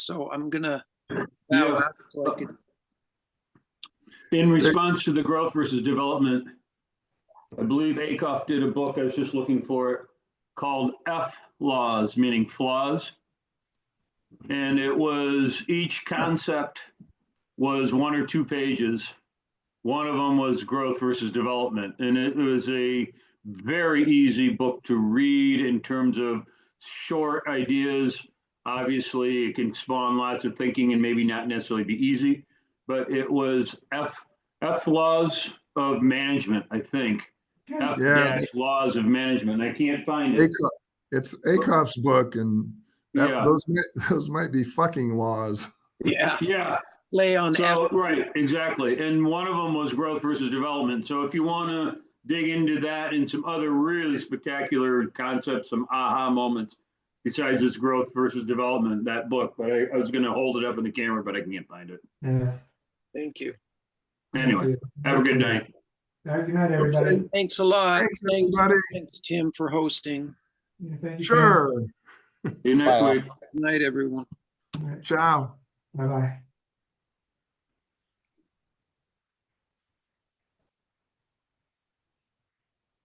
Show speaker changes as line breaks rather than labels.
so I'm gonna.
Yeah.
So I could-
In response to the growth versus development, I believe Acuff did a book, I was just looking for it, called F Laws, meaning flaws. And it was, each concept was one or two pages. One of them was growth versus development, and it was a very easy book to read in terms of short ideas. Obviously, it can spawn lots of thinking and maybe not necessarily be easy but it was F, F laws of management, I think. F
Yeah.
dash laws of management. I can't find it.
Acuff- It's Acuff's book and that,
Yeah.
those, mi- those might be fucking laws.
Yeah,
Yeah,
lay on
so,
F.
right, exactly. And one of them was growth versus development. So if you want to dig into that and some other really spectacular concepts, some aha moments, besides this growth versus development, that book, but I, I was going to hold it up in the camera, but I can't find it.
Yeah.
Thank you.
Anyway, have a good night.
All right, Good night, everybody.
Okay.
Thanks a lot.
Thanks,
Thank-
everybody.
Thanks, Tim, for hosting.
Yeah, thank you, Ken.
Sure.
See you next
Bye.
week.
Good Night, everyone.
All right,
Ciao.
Bye-bye.